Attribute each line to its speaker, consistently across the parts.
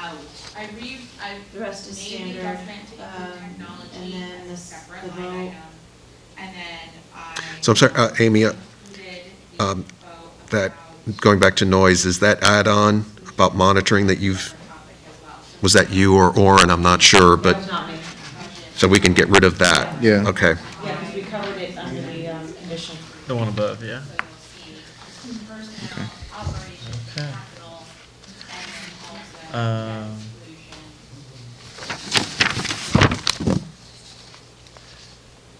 Speaker 1: out.
Speaker 2: I re, I
Speaker 1: um, The rest is
Speaker 2: made the
Speaker 1: standard.
Speaker 2: judgment to
Speaker 1: um,
Speaker 2: include
Speaker 1: and
Speaker 2: technology
Speaker 1: then
Speaker 2: as a
Speaker 1: this-
Speaker 2: separate
Speaker 1: the
Speaker 2: line
Speaker 1: vote.
Speaker 2: item. And then I.
Speaker 3: So I'm sorry, uh, Amy, uh,
Speaker 2: included the
Speaker 3: um,
Speaker 2: vote
Speaker 3: that-
Speaker 2: about
Speaker 3: Going back to noise, is that add-on about monitoring that you've,
Speaker 2: separate topic as well. So
Speaker 3: was that you or Orin? I'm not sure,
Speaker 1: That was
Speaker 3: but,
Speaker 1: not me.
Speaker 2: motion
Speaker 3: so we can get rid of that?
Speaker 4: Yeah.
Speaker 3: Okay.
Speaker 1: Yeah, because we covered it under the um, condition.
Speaker 5: The one above, yeah.
Speaker 2: So you'll see personnel, operations,
Speaker 5: Okay.
Speaker 2: capital, and then also debt
Speaker 5: Um,
Speaker 2: exclusion.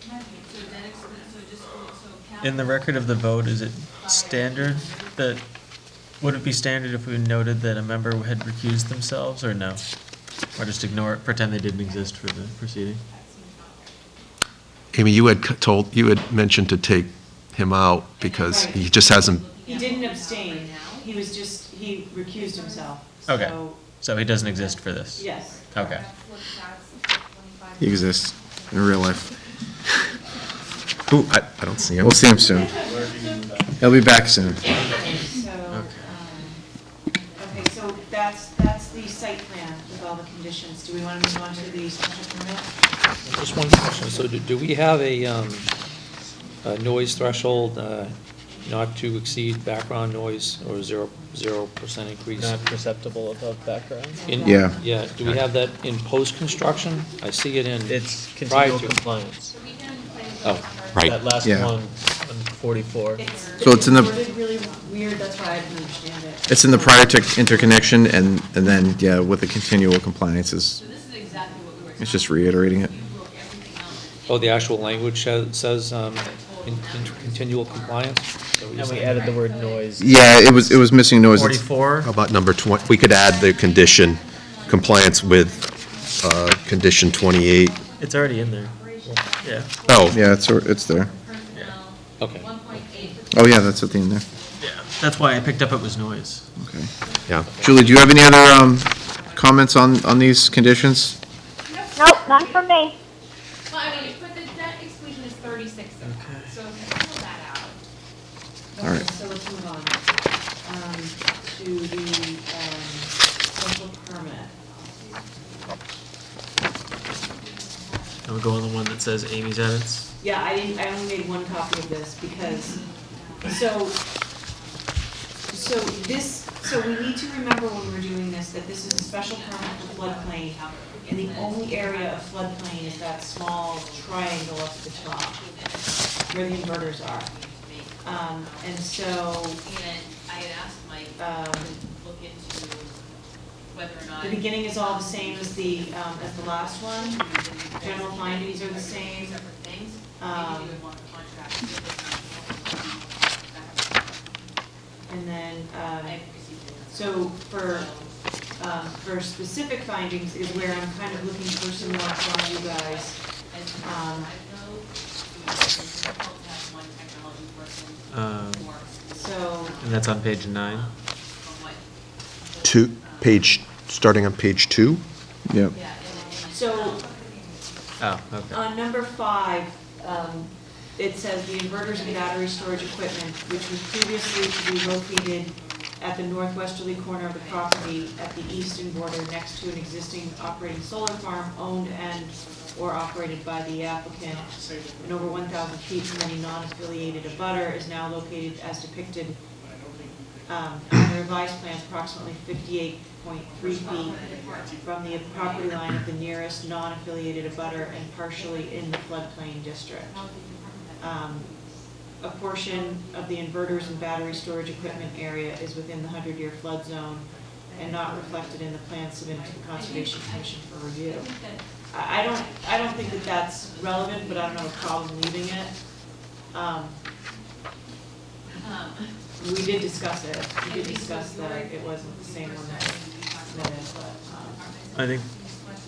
Speaker 2: So debt exclusion, so just, so capital.
Speaker 5: In the record of the vote, is it standard that, would it be standard if we noted that a member had recused themselves, or no? Or just ignore it, pretend they didn't exist for the proceeding?
Speaker 2: That seems not right.
Speaker 3: Amy, you had c- told, you had mentioned to take him out because he just hasn't,
Speaker 1: He didn't abstain. He was just, he recused himself.
Speaker 5: Okay.
Speaker 1: So,
Speaker 5: So he doesn't exist for this?
Speaker 1: Yes.
Speaker 5: Okay.
Speaker 4: He exists in real life.
Speaker 3: ooh, I, I don't see him.
Speaker 4: We'll see him soon. He'll be back soon.
Speaker 1: So, um, okay, so that's, that's the site plan with all the conditions. Do we want to move on to the special permit?
Speaker 6: Just one question, so do, do we have a, um, a noise threshold, uh, not to exceed background noise or zero, zero percent increase?
Speaker 5: perceptible above background?
Speaker 6: In-
Speaker 4: Yeah.
Speaker 6: Yeah, do we have that in post-construction? I see it in.
Speaker 5: It's
Speaker 6: Prior
Speaker 5: continual
Speaker 6: to-
Speaker 5: compliance.
Speaker 2: So we can play with
Speaker 6: Oh,
Speaker 2: numbers.
Speaker 7: right.
Speaker 5: That last
Speaker 4: Yeah.
Speaker 5: one, on 44.
Speaker 4: So it's in the-
Speaker 1: worded really weird, that's why I didn't understand it.
Speaker 4: It's in the prior tech interconnection and, and then, yeah, with the continual compliance is,
Speaker 2: So this is exactly what we were.
Speaker 4: it's just reiterating it.
Speaker 2: talking about. Everything else is
Speaker 6: Oh, the actual language says, says, um, in, in continual compliance? So
Speaker 5: And
Speaker 6: just-
Speaker 5: we added the word noise.
Speaker 4: Yeah, it was, it was Oh. missing noise. It's-
Speaker 5: 44,
Speaker 3: How about number 20, we could add the condition, compliance with uh, condition 28.
Speaker 5: it's already in there. Yeah.
Speaker 3: Oh,
Speaker 4: Yeah, it's, it's there.
Speaker 2: personnel,
Speaker 6: Okay.
Speaker 2: one point eight.
Speaker 4: Oh, yeah, that's at the end there.
Speaker 5: Yeah, that's why I picked up it was noise.
Speaker 4: Okay.
Speaker 3: yeah.
Speaker 4: Julie, do you have any other, um, comments on, on these conditions?
Speaker 8: Nope, not for
Speaker 2: Well,
Speaker 8: me.
Speaker 2: I mean, but the debt exclusion is thirty-six of that, so if you pull that out.
Speaker 4: All right.
Speaker 1: So let's move on um, to the um, special permit.
Speaker 5: And we go on the one that says Amy's edits.
Speaker 1: Yeah, I didn't, I only made one copy of this because, so, so this, so we need to remember when we're doing this, that this is a special permit for floodplain. And the only area of floodplain is that small triangle up at the top where the inverters are. Um, and so,
Speaker 2: And I had asked Mike
Speaker 1: um,
Speaker 2: to look into whether or not.
Speaker 1: the beginning is all the same as the, um, as the last one. General findings are the same.
Speaker 2: Separate things, maybe
Speaker 1: Um,
Speaker 2: you would want a contract. with
Speaker 1: and then,
Speaker 2: this. I
Speaker 1: um,
Speaker 2: haven't received it.
Speaker 1: so for um, for specific findings is where I'm kind of looking for some more from you guys.
Speaker 2: As a
Speaker 1: Um,
Speaker 2: side note, it was difficult to have one technology person
Speaker 5: Um,
Speaker 2: for,
Speaker 1: So,
Speaker 5: And that's on page nine.
Speaker 2: from what,
Speaker 3: Two, page, starting on page two?
Speaker 4: Yep.
Speaker 2: yeah, in the- in the-
Speaker 1: so
Speaker 5: Oh, okay.
Speaker 1: on number five, um, it says the inverters and battery storage equipment, which was previously to be located at the northwesterly corner of the property at the eastern border next to an existing operating solar farm owned and or operated by the applicant and over 1,000 feet from any non-affiliated abutter is now located as depicted um, on the revised plan approximately 58.3 feet from the property line of the nearest non-affiliated abutter and partially in the floodplain district. Um, A portion of the inverters and battery storage equipment area is within the 100-year flood zone and not reflected in the plan submitted to the Conservation Commission for review. I I don't, I don't think that that's relevant, but I don't have a problem leaving it. Um,
Speaker 2: Um,
Speaker 1: We did discuss it, we did discuss that it wasn't the same one that was submitted, but, um,
Speaker 5: I think,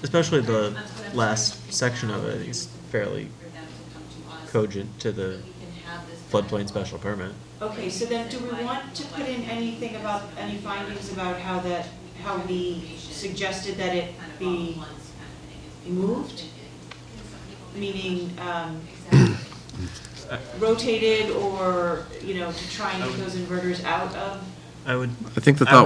Speaker 5: especially the last section of it, I think is fairly
Speaker 2: for them to come to us.
Speaker 5: cogent to the
Speaker 2: We can have this.
Speaker 5: floodplain special permit.
Speaker 1: Okay, so then do we want to put in anything about, any findings about how that, how we suggested that it
Speaker 2: kind of all at
Speaker 1: be
Speaker 2: once kind of thing. It's
Speaker 1: moved?
Speaker 2: because some people think-
Speaker 1: Meaning um,
Speaker 2: Exactly.
Speaker 1: rotated or, you know, to try and get those inverters out of
Speaker 5: I would
Speaker 4: I think the
Speaker 5: I
Speaker 4: thought